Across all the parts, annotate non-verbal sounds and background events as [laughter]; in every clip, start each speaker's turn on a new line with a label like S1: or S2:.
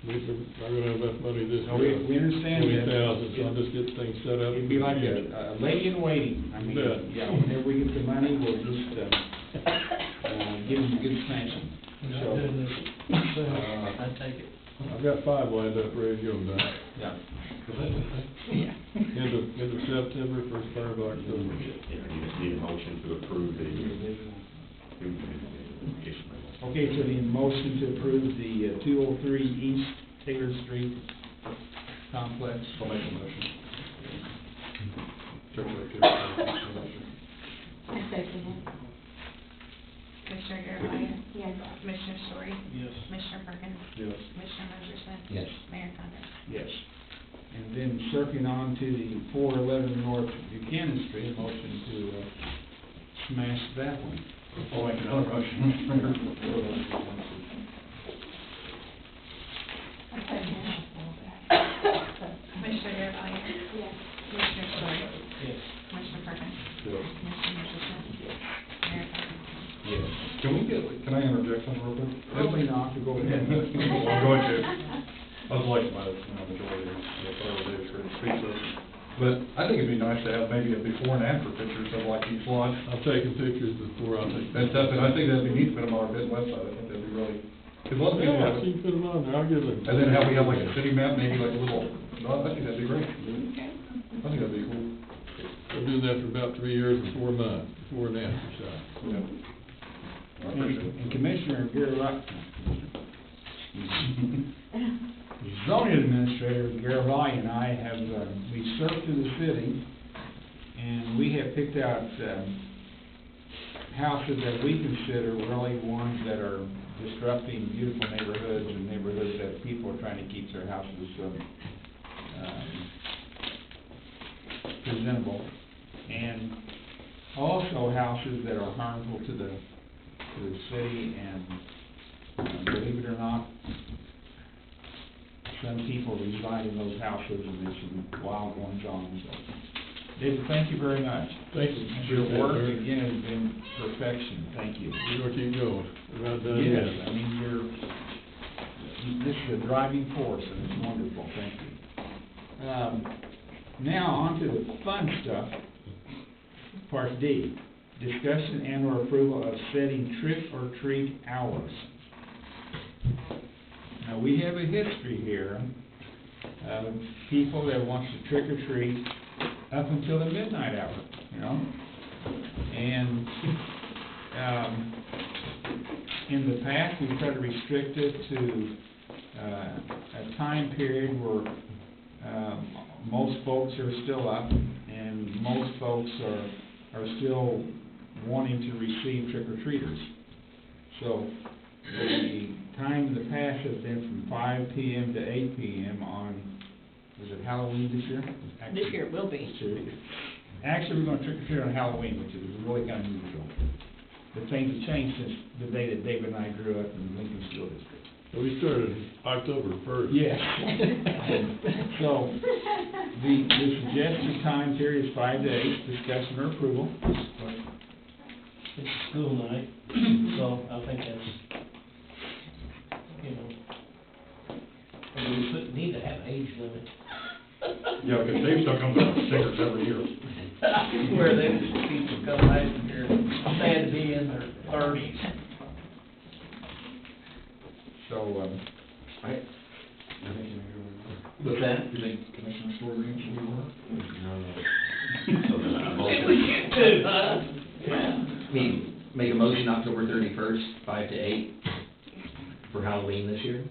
S1: We, we're gonna have enough money this year.
S2: No, we- we understand
S1: Twenty
S2: that.
S1: thousand, so I'll just get things set up.
S2: It'd be like a, a lady in waiting, I mean,
S1: Yeah.
S2: yeah, whenever we get the money, we'll just, uh, uh, give them a good sanction.
S3: We're not
S2: So,
S3: doing this. So,
S4: Uh,
S3: I take it.
S1: I've got five lined up ready to go, Doc.
S2: Yeah.
S1: End of, end of September, first part of October.
S4: You just need a motion to approve the, Ishmael.
S2: Okay, so the motion to approve the two oh three East Taylor Street complex. I'll make a motion.
S5: I second it.
S6: Commissioner Garvelia?
S5: Yes.
S6: Commissioner Story?
S3: Yes.
S6: Commissioner Perkins?
S2: Yes.
S6: Commissioner Merschman?
S2: Yes.
S6: Mayor Condon?
S2: Yes. And then circling on to the four eleven North Buchanan Street, a motion to, uh, smash that one. Oh, I can,
S5: I second it.
S6: Commissioner Garvelia?
S5: Yes.
S6: Commissioner Story?
S3: Yes.
S6: Commissioner Perkins? Commissioner Merschman? Mayor Condon?
S4: Yes. Can we get, can I interject something real quick?
S2: Probably not, to go ahead. [laughs]
S4: I'm going to. I was like, my, my majority of the fellow there for the speechless. But I think it'd be nice to have maybe a before and after pictures of like each lot.
S1: I've taken pictures before, I'll take.
S4: That's something, I think that'd be neat to put them on our bid website, I think that'd be really, because a lot of people
S1: Yeah,
S4: have,
S1: if you can put them on there, I'll give them.
S4: and then how we have like a city map, maybe like a little, no, I think that'd be great.
S6: Okay.
S4: I think that'd be cool.
S1: I've been doing that for about three years and four months, before and after shot.
S4: Yeah. I appreciate it.
S2: And Commissioner Garvelia, zoning administrator Garvelia and I have, uh, we surfed through the city, and we have picked out, um, houses that we consider really ones that are disrupting beautiful neighborhoods and neighborhoods that people are trying to keep their houses, um, um, presentable. And also houses that are harmful to the, to the city, and uh, believe it or not, some people reside in those houses, and there's some wild ones on, so. David, thank you very much.
S1: Thank you.
S2: Your work, again, has been perfection, thank you.
S1: You know where you go, We're not done
S2: Yes,
S1: yet.
S2: I mean, you're, you- this is a driving force, and it's wonderful, thank you. Um, Now, on to the fun stuff, part D, discussion and or approval of setting trick or treat hours. Now, we have a history here of people that wants to trick or treat up until the midnight hour, you know? And, um, in the past, we've tried to restrict it to, uh, a time period where, um, most folks are still up, and most folks are, are still wanting to receive trick-or-treaters. So, the time in the past has been from five PM to eight PM on, was it Halloween this year?
S5: This year it will be.
S2: This year. Actually, we're gonna trick-or-treat on Halloween, which is really kind of unusual. The things have changed since the day that David and I grew up in Lincoln School District.
S1: We started October first.
S2: Yes. [laughs] So, the, the suggested time period is five days, discussion or approval.
S3: It's school night, so I think that's, you know, I mean, we shouldn't need to have age limit.
S4: Yeah, because Dave still comes out with stickers every year.
S3: Where they just people come out and they're sad to be in their thirties.
S2: So, um, I,
S4: What's that? You think Commissioner Story reads what we want?
S7: We make a motion October thirty-first, five to eight, for Halloween this year.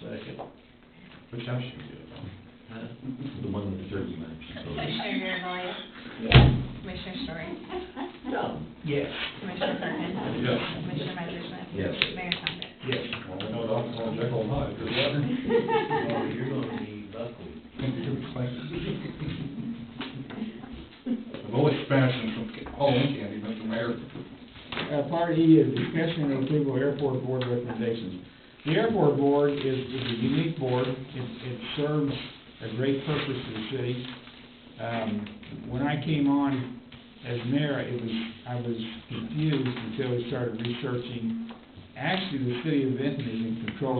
S3: Second.
S4: Which house should we do it on?
S7: Huh? The one with the turkey
S6: [laughs]
S7: much.
S6: Commissioner Garvelia?
S5: Yes.
S6: Commissioner Story?
S3: No. Yes.
S6: Commissioner Perkins?
S4: Yes.
S6: Commissioner Merschman?
S7: Yes.
S6: Mayor Condon?
S2: yes,
S4: Well, we know the alcohol check all night, good luck.
S3: Oh, you're gonna be buckled.
S4: I've always smashed them from Halloween candy, Mr. Mayor.
S2: Uh, part E is discussion and approval of airport board recommendations. The airport board is, is a unique board, it, it serves a great purpose to the city. Um, when I came on as mayor, it was, I was confused until I started researching. Actually, the city of Benton is in control of